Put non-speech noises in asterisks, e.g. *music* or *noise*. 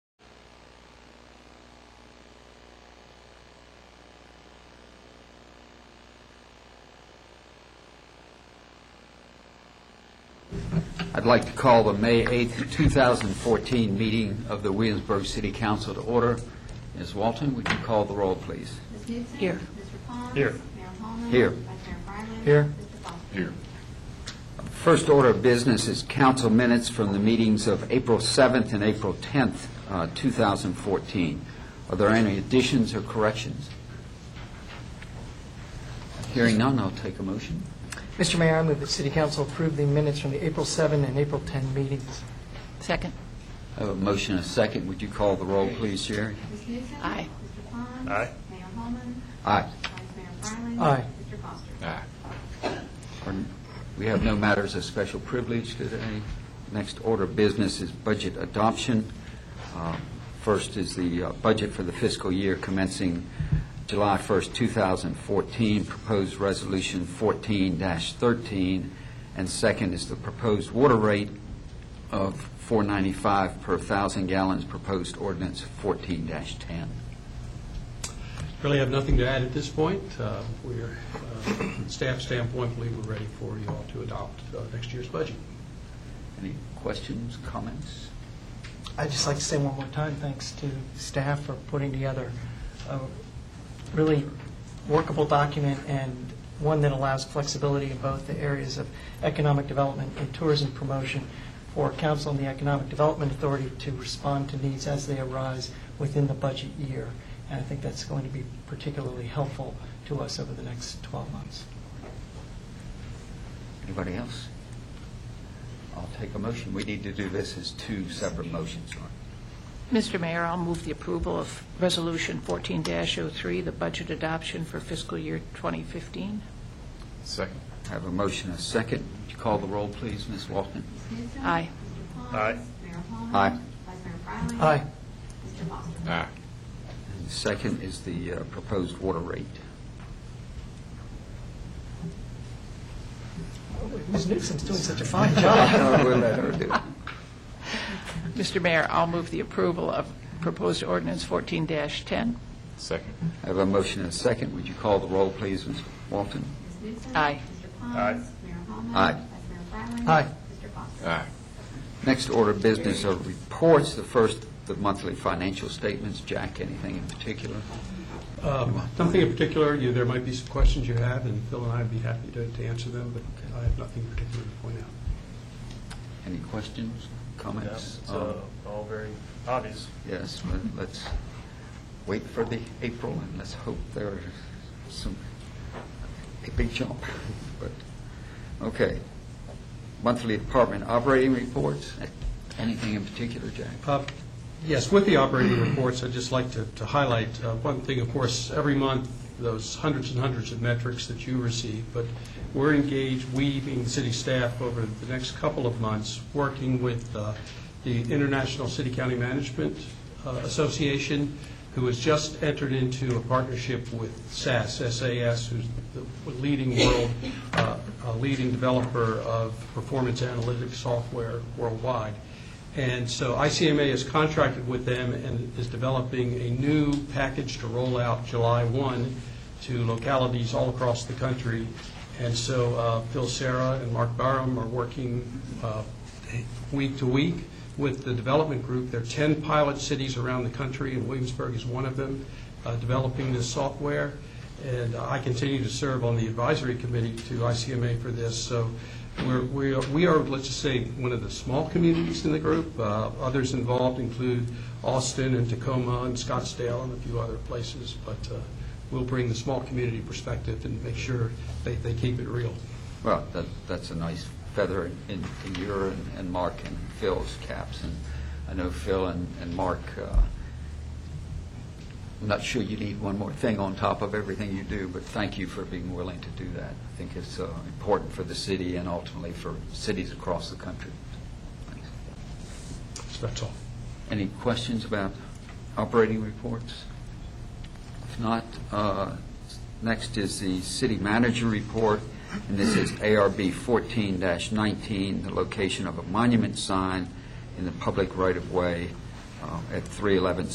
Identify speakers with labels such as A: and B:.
A: I'd like to call the May 8th, 2014 meeting of the Williamsburg City Council to order. Ms. Walton, would you call the roll, please?
B: Ms. Gibson.
C: Here.
B: Mr. Pond.
D: Here.
B: Mayor Holman.
A: Here.
B: Vice Mayor Bryan.
D: Here.
B: Mr. Foster. Here.
A: First order of business is council minutes from the meetings of April 7th and April 10th, uh, 2014. Are there any additions or corrections? Hearing none, I'll take a motion.
E: Mr. Mayor, I move that City Council approve the minutes from the April 7 and April 10 meetings.
C: Second.
A: I have a motion and a second. Would you call the roll, please, Jerry?
B: Ms. Gibson.
C: Aye.
B: Mr. Pond.
D: Aye.
B: Mayor Holman.
A: Aye.
B: Vice Mayor Bryan.
E: Aye.
B: Mr. Foster.
A: Or- We have no matters of special privilege today. Next order of business is budget adoption. Uh, First is the uh, budget for the fiscal year commencing July 1st, 2014, proposed resolution 14-13, and second is the proposed water rate of 495 per thousand gallons, proposed ordinance 14-10.
F: Really have nothing to add at this point. Uh, We're, uh, from staff standpoint, believe we're ready for you all to adopt uh, next year's budget.
A: Any questions, comments?
E: I'd just like to say one more time, thanks to staff for putting together a really workable document and one that allows flexibility in both the areas of economic development and tourism promotion for council and the Economic Development Authority to respond to needs as they arise within the budget year. And I think that's going to be particularly helpful to us over the next 12 months.
A: Anybody else? I'll take a motion. We need to do this as two separate motions. right?
C: Mr. Mayor, I'll move the approval of Resolution 14-03, the budget adoption for fiscal year 2015.
D: Second.
A: I have a motion, and a second. Would you call the roll, please, Ms. Walton?
B: Ms. Gibson.
C: Aye.
B: Mr. Pond.
D: Aye.
B: Mayor Holman.
A: Aye.
B: Vice Mayor Bryan.
E: Aye.
B: Mr. Foster.
D: Aye.
A: And the second is the uh, proposed water rate.
E: Oh, Ms. Newsom's doing such a fine job.
A: *laughs* We'll let her do it.
C: Mr. Mayor, I'll move the approval of proposed ordinance 14-10.
D: Second.
A: I have a motion, and a second. Would you call the roll, please, Ms. Walton?
B: Ms. Gibson.
C: Aye.
B: Mr. Pond.
D: Aye.
B: Mayor Holman.
A: Aye.
B: Vice Mayor Bryan.
E: Aye.
B: Mr. Foster.
D: Aye.
A: Next order of business are reports. The first, the monthly financial statements. Jack, anything in particular?
F: Um, Nothing in particular, You- there might be some questions you have, and Phil and I would be happy to to answer them, but I have nothing particular to point out.
A: Any questions, comments? Uh,
D: All very obvious.
A: Yes, but let's wait for the April, and let's hope there's some, a big jump. *laughs* But, okay. Monthly department operating reports, anything in particular, Jack?
F: Uh, Yes, with the operating reports, I'd just like to to highlight uh, one thing, of course, every month, those hundreds and hundreds of metrics that you receive, but we're engaged, we being the city staff, over the next couple of months, working with uh, the International City County Management uh, Association, who has just entered into a partnership with SAS, SAS, who's the leading world, uh, uh, leading developer of performance analytics software worldwide. And so ICMA is contracted with them and is developing a new package to roll out July 1 to localities all across the country. And so uh, Phil Sarah and Mark Barham are working uh, week to week with the development group. There are 10 pilot cities around the country, and Williamsburg is one of them, uh, developing this software. And I continue to serve on the advisory committee to ICMA for this. So we're, we are- we are, let's just say, one of the small communities in the group. Uh, Others involved include Austin and Tacoma and Scottsdale and a few other places. But uh, we'll bring the small community perspective and make sure they, they keep it real.
A: Well, that, that's a nice feather in- in, in your and- and Mark and Phil's caps, and I know Phil and, and Mark, uh, I'm not sure you need one more thing on top of everything you do, but thank you for being willing to do that. I think it's uh, important for the city and ultimately for cities across the country. Thanks.
F: So that's all.
A: Any questions about operating reports? If not, uh, next is the city manager report, and this is ARB 14-19, the location of a monument sign in the public right-of-way uh, at 311